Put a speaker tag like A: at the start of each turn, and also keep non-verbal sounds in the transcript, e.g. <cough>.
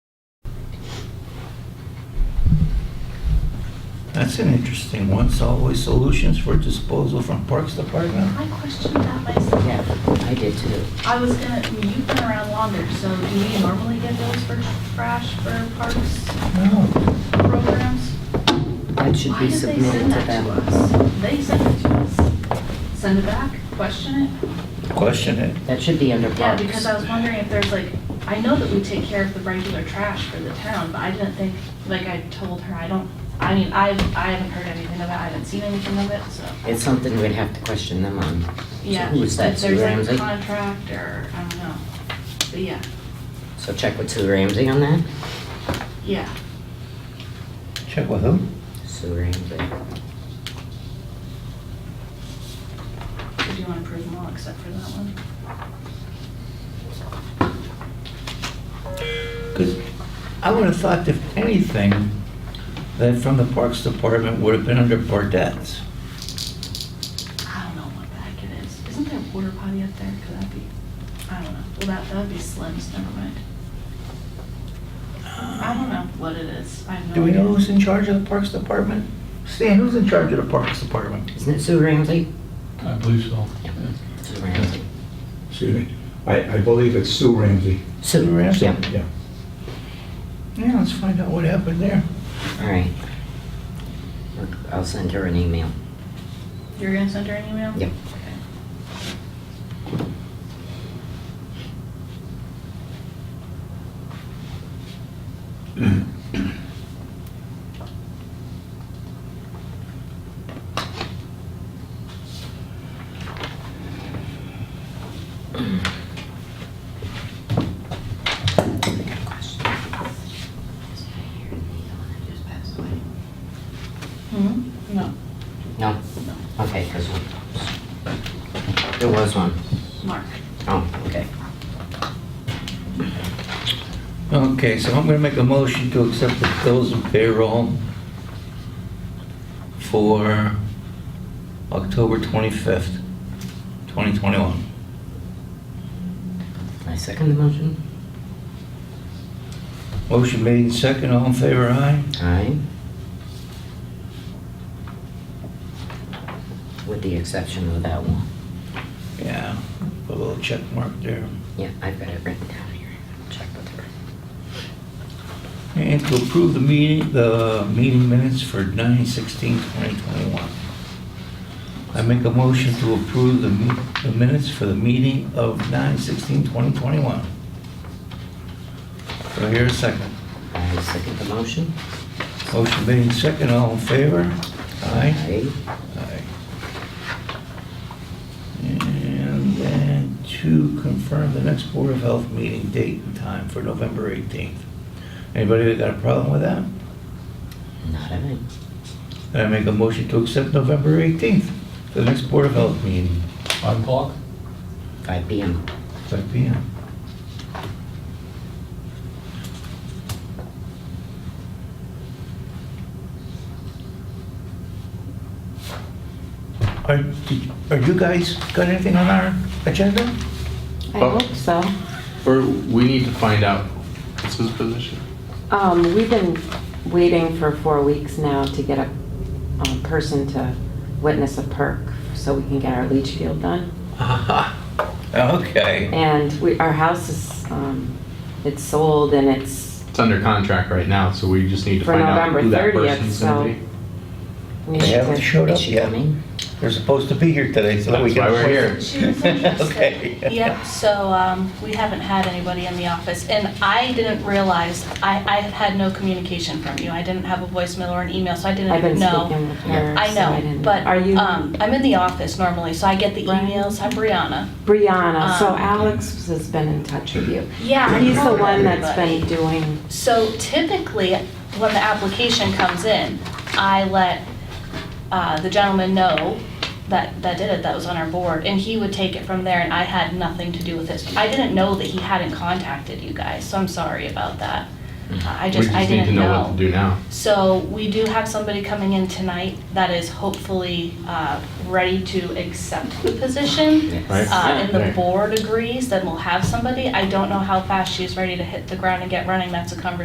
A: That's an interesting one. Solid waste solutions for disposal from Parks Department?
B: I questioned that myself.
C: Yeah, I did too.
B: I was gonna, I mean, you've been around longer, so do you normally get bills for trash for parks
A: No.
B: programs?
C: That should be submitted
B: Why did they send
C: to
B: that
C: them.
B: to us? They sent it to us. Send it back, question it?
A: Question it.
C: That should be under
B: Yeah,
C: parks.
B: because I was wondering if there's like, I know that we take care of the regular trash for the town, but I didn't think, like I told her, I don't, I mean, I, I haven't heard anything of it, I haven't seen anything of it, so.
C: It's something we'd have to question them on.
B: Yeah,
C: Who is that,
B: if
C: Sue
B: there's like
C: Ramsey?
B: a contract or, I don't know, but yeah,
C: So check with Sue Ramsey on that?
B: yeah.
A: Check with who?
C: Sue Ramsey.
B: Do you want to approve them all except for that one?
A: Because I would have thought if anything, that from the Parks Department would have been under Bardettes.
B: I don't know what the heck it is. Isn't there a water potty up there? Could that be, I don't know. Well, that, that'd be Slim's, never mind. I don't know what it is. I have no
A: Do we
B: idea.
A: know who's in charge of the Parks Department? Stan, who's in charge of the Parks Department?
C: Isn't it Sue Ramsey?
D: I believe so.
C: Sue Ramsey.
E: Excuse me. I, I believe it's Sue Ramsey.
A: Sue Ramsey?
C: Yeah,
E: Yeah.
A: Yeah, let's find out what happened there.
C: all right. Look, I'll send her an email.
B: You're gonna send her an email?
C: Yep.
B: Okay. Hmm? No.
C: No?
B: No.
C: Okay, because there was one.
B: Mark.
C: Oh, okay.
A: Okay, so I'm gonna make a motion to accept the bills and payroll for October 25th, 2021.
C: I second the motion.
A: Motion made and second, all in favor, aye?
C: Aye. With the exception of that one.
A: Yeah, put a little check mark there.
C: Yeah, I've got it written down here. Check with her.
A: And to approve the meeting, the meeting minutes for 9/16/2021. I make a motion to approve the me- the minutes for the meeting of 9/16/2021. Do I hear a second?
C: I second the motion.
A: Motion made and second, all in favor? Aye.
C: Aye.
A: Aye. And then to confirm the next Board of Health meeting date and time for November 18th. Anybody that got a problem with that?
C: Not aye.
A: I make a motion to accept November 18th for the next Board of Health meeting,
D: Five o'clock?
C: Five PM.
A: 5 PM. Are, did- are you guys got anything on our agenda?
F: I
G: Oh.
F: hope so.
G: Or we need to find out what's his position.
F: Um, we've been waiting for four weeks now to get a, a person to witness a perk so we can get our leach field done.
A: Okay.
F: And we, our house is, um, it's sold and it's,
G: It's under contract right now, so we just need to
F: For
G: find out
F: November
G: who that
F: 30th,
G: person's gonna
F: so-
G: be.
F: we
A: They
F: need
A: haven't
F: to,
A: showed
C: Is
A: up
C: she
A: yet.
C: coming?
A: They're supposed to be here today, so that we
G: That's why
A: can...
G: we're here.
B: She was
G: <laughs>
A: <laughs>
B: interested.
A: Okay.
B: Yep, so um, we haven't had anybody in the office, and I didn't realize, I I had no communication from you. I didn't have a voicemail or an email, so I didn't know.
F: I've been speaking with her.
B: I
F: so
B: know,
F: didn't-
B: but
F: Are you
B: um, I'm in the office normally, so I get the
F: Right.
B: emails. I'm Brianna.
F: Brianna? So
B: um,
F: Alex has been in touch with you.
B: Yeah.
F: He's the one that's been doing,
B: So typically, when the application comes in, I let uh, the gentleman know that, that did it, that was on our board, and he would take it from there, and I had nothing to do with this. I didn't know that he hadn't contacted you guys, so I'm sorry about that. I
G: Mm-hmm. We
B: just, I
G: just need to
B: didn't
G: know what to
B: know.
G: do now.
B: So we do have somebody coming in tonight that is hopefully uh, ready to accept the position
G: Right.
B: uh, and the
G: Right.
B: board agrees, then we'll have somebody. I don't know how fast she's ready to hit the ground and get running, that's a conversation